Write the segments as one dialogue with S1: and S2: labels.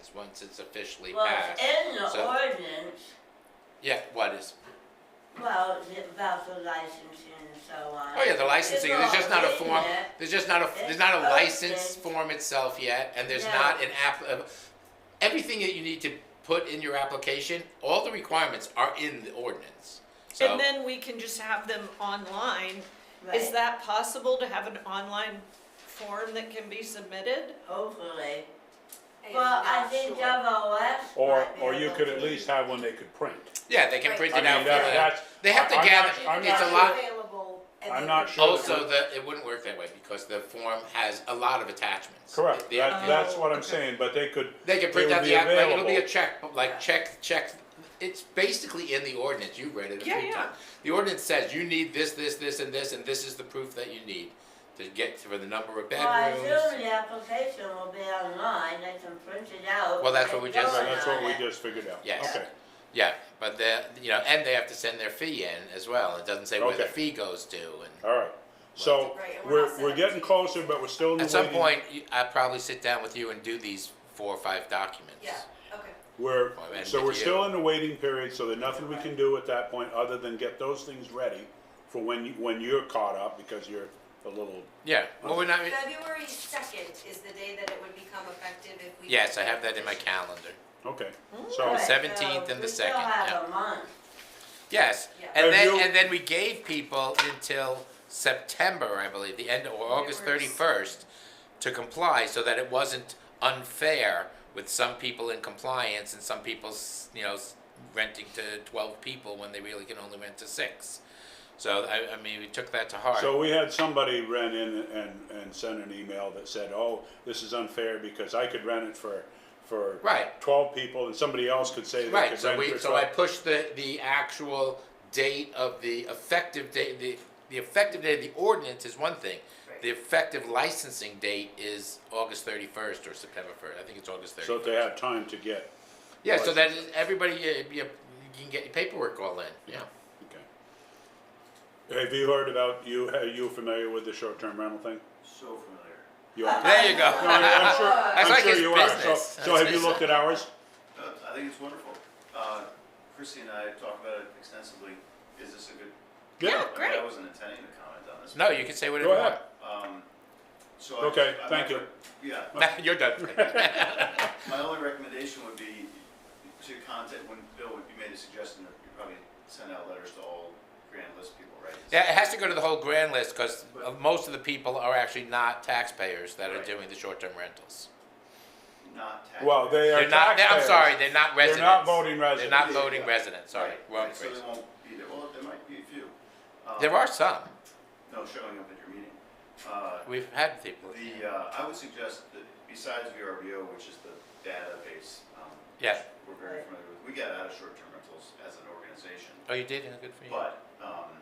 S1: is once it's officially
S2: Well,
S1: passed.
S2: it's in the
S1: so-
S2: ordinance,
S1: Yeah, what is? oh,
S2: well, the- about the licensing and so on.
S1: Oh yeah, the licensing. There's just not a
S2: It's all in
S1: form.
S2: there.
S1: There's just not a there's not a
S2: It's
S1: license
S2: open.
S1: form itself yet, and there's
S2: No.
S1: not an app. Uh, everything that you need to put in your application, all the requirements are in the ordinance. So
S3: And then we can just have them online. Is
S2: Right,
S3: that possible to have an online form that can be submitted?
S2: hopefully.
S4: am
S2: Well, I
S4: not
S2: think
S4: sure.
S2: double S.
S5: Or,
S2: might be
S5: or you
S2: able
S5: could
S2: to-
S5: at least have one they could print.
S1: yeah, they can
S4: Right.
S1: print
S5: I
S1: it
S5: mean,
S1: out. for
S5: that-
S1: them.
S5: that's-
S1: they have to
S5: I'm not-
S1: gather.
S5: I'm
S1: it's
S5: not
S1: a lot.
S4: Available and
S5: I'm
S4: they
S5: not
S4: could-
S5: sure.
S1: Also, the it wouldn't work that way because the form has a lot of attachments.
S5: Correct,
S1: The
S5: that,
S1: application-
S5: that's what I'm saying, but they could,
S1: They can
S5: They
S1: print
S5: would
S1: out
S5: be
S1: the app, like, it'll be a
S5: available.
S1: check, like, check, check, it's basically in the ordinance, you've read it a few
S3: Yeah,
S1: times.
S3: yeah.
S1: The ordinance says you need this, this, this, and this, and this is the proof that you need to get for the number of
S2: Well, I assume
S1: bedrooms.
S2: the application will be online, they can print it out.
S1: Well, that's what we
S2: and
S1: just-
S2: go
S5: that's
S2: on
S5: what we
S2: it.
S5: just figured out.
S1: Yes.
S5: Okay,
S1: Yeah, but the, you know, and they have to send their fee in as well, it doesn't say where the
S5: Okay.
S1: fee goes to, and
S5: all right. So,
S4: Right, and we're
S5: we're,
S4: not set
S5: we're
S4: up
S5: getting
S4: to-
S5: closer, but we're still in the
S1: at some
S5: waiting-
S1: point, you- I'll probably sit down with you and do these four or five documents.
S4: Yeah, okay.
S5: We're,
S1: Well, and
S5: so
S1: with
S5: we're
S1: you.
S5: still in the waiting period, so there's nothing we can do at that point, other than get those things ready for when you, when you're caught up, because you're a little,
S1: Yeah, well, we're not,
S4: February second is the day that it would become effective if we.
S1: yes, I have that in my calendar,
S5: okay,
S2: All
S5: so,
S2: right,
S1: 17th
S2: so
S1: and the
S2: we still
S1: 2nd,
S2: have
S1: yeah.
S2: a month.
S1: yes,
S4: Yeah.
S1: and
S5: Have
S1: then,
S5: you-
S1: and then we gave people until September, I believe, the end, or August
S4: February
S1: thirty-first, to comply, so that it wasn't unfair with some people in compliance and some people, s- you know, s- renting to twelve people when they really can only rent to six. So, I, I mean, we took that to heart.
S5: so we had somebody rent in and, and send an email that said, oh, this is unfair, because I could rent it for, for
S1: Right.
S5: twelve people, and somebody else could say they could rent
S1: Right,
S5: it
S1: so we,
S5: for
S1: so I
S5: twelve.
S1: pushed the, the actual date of the effective date, the, the effective date of the ordinance is one thing. The effective licensing date is August thirty-first or September first, I think it's August
S5: So
S1: thirty-first.
S5: that they have time to get,
S1: Yeah, so that is, everybody, uh, you, you can get your paperwork all in, yeah.
S5: okay. Have you heard about, you, are you familiar with the short-term rental thing?
S6: So familiar.
S5: You are?
S1: There you
S5: No, I'm
S1: go.
S5: sure,
S1: That's
S5: I'm
S1: like
S5: sure
S1: his
S5: you are, so,
S1: business.
S5: so have you
S1: That's-
S5: looked at ours?
S6: Uh, I think it's wonderful. Uh, Chrissy and I talked about it extensively. Is this a good?
S3: Yeah,
S6: I mean,
S3: great.
S6: I wasn't intending to comment on this.
S1: No, you can say whatever
S5: Go
S1: you want.
S5: ahead.
S6: Um, so I-
S5: Okay,
S6: I'm
S5: thank
S6: not-
S5: you.
S6: Yeah,
S1: Nah, You're done.
S6: my only recommendation would be to contact, when Bill, you made a suggestion that you probably send out letters to all grand list people, right?
S1: Yeah, it has to go to the whole grand list, cause uh, most of the people are actually not taxpayers that are
S6: Right.
S1: doing the short-term rentals.
S6: Not tax.
S5: Well, they are
S1: They're not, they- I'm
S5: taxpayers.
S1: sorry, they're not
S5: They're
S1: residents.
S5: not voting
S1: They're
S5: residents.
S1: not
S6: Yeah,
S1: voting
S6: yeah.
S1: residents, sorry,
S6: Right,
S1: wrong
S6: right, So
S1: phrase.
S6: they won't be there. Well, there might be a few. Um,
S1: There are some,
S6: No showing up at your meeting. Uh,
S1: we've had people,
S6: The, uh, I would suggest that besides VRBO, which is the database, um,
S1: Yeah.
S6: which we're very familiar with, we got out of short-term rentals as an organization.
S1: oh, you did, Yeah, good for you.
S6: But, um,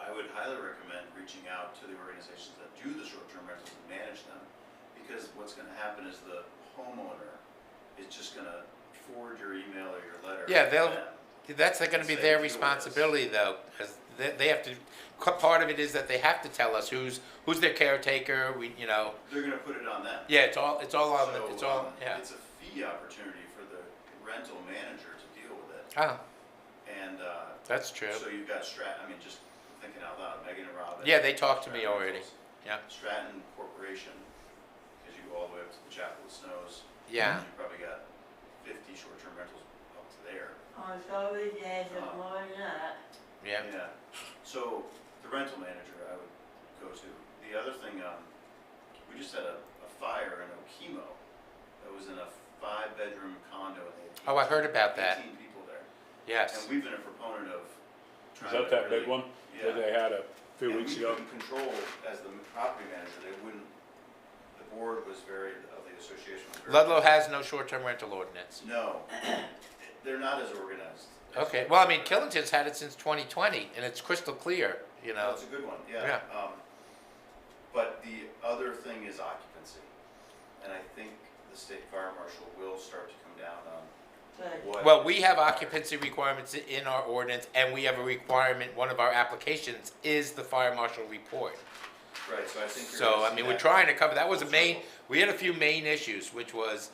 S6: I would highly recommend reaching out to the organizations that do the short-term rentals and manage them. Because what's gonna happen is the homeowner is just gonna forward your email or your letter.
S1: Yeah,
S6: to
S1: they'll-
S6: them.
S1: That's like gonna be
S6: Say
S1: their
S6: who it is.
S1: responsibility though, 'cause they, they have to, co- part of it is that they have to tell us who's, who's their caretaker, we, you know,
S6: They're gonna put it on them.
S1: yeah, it's all, it's all on, the-
S6: So,
S1: it's all,
S6: um,
S1: yeah.
S6: It's a fee opportunity for the rental manager to deal with it.
S1: Oh,
S6: And, uh,
S1: that's true,
S6: So you've got Stratton, I mean, just thinking out loud, Megan and Robin.
S1: Yeah, they talked to me
S6: Stratton
S1: already.
S6: Rentals,
S1: yeah,
S6: Stratton Corporation, because you go all the way up to the Chapel of Snows.
S1: yeah,
S6: You probably got fifty short-term rentals up to there.
S2: On Thursday, it's
S6: Oh.
S2: more than that.
S1: yeah,
S6: Yeah, so the rental manager I would go to. The other thing, um, we just had a, a fire in Okemo that was in a five-bedroom condo. and they had
S1: Oh, I heard about that.
S6: Eighteen people there. And
S1: yes,
S6: we've been a proponent of
S5: Is
S6: trying to
S5: that that big
S6: really-
S5: one that
S6: Yeah.
S5: they had a few
S6: And
S5: weeks
S6: we
S5: ago?
S6: couldn't control as the property manager, they wouldn't, the board was very, of the association was very.
S1: Ludlow has no short-term rental ordinance.
S6: No, they're not as organized.
S1: Okay, well, I mean, Killington's had it since twenty twenty, and it's crystal clear, you know,
S6: That's a good one, yeah. Um, But the other thing is occupancy, and I think the state fire marshal will start to come down on
S2: Good.
S6: what.
S1: Well, we have occupancy requirements i- in our ordinance, and we have a requirement, one of our applications is the fire marshal report.
S6: Right, so I think. you're
S1: So,
S6: gonna
S1: I
S6: see
S1: mean, we're
S6: that.
S1: trying to cover, that was a main, we had a few main issues, which was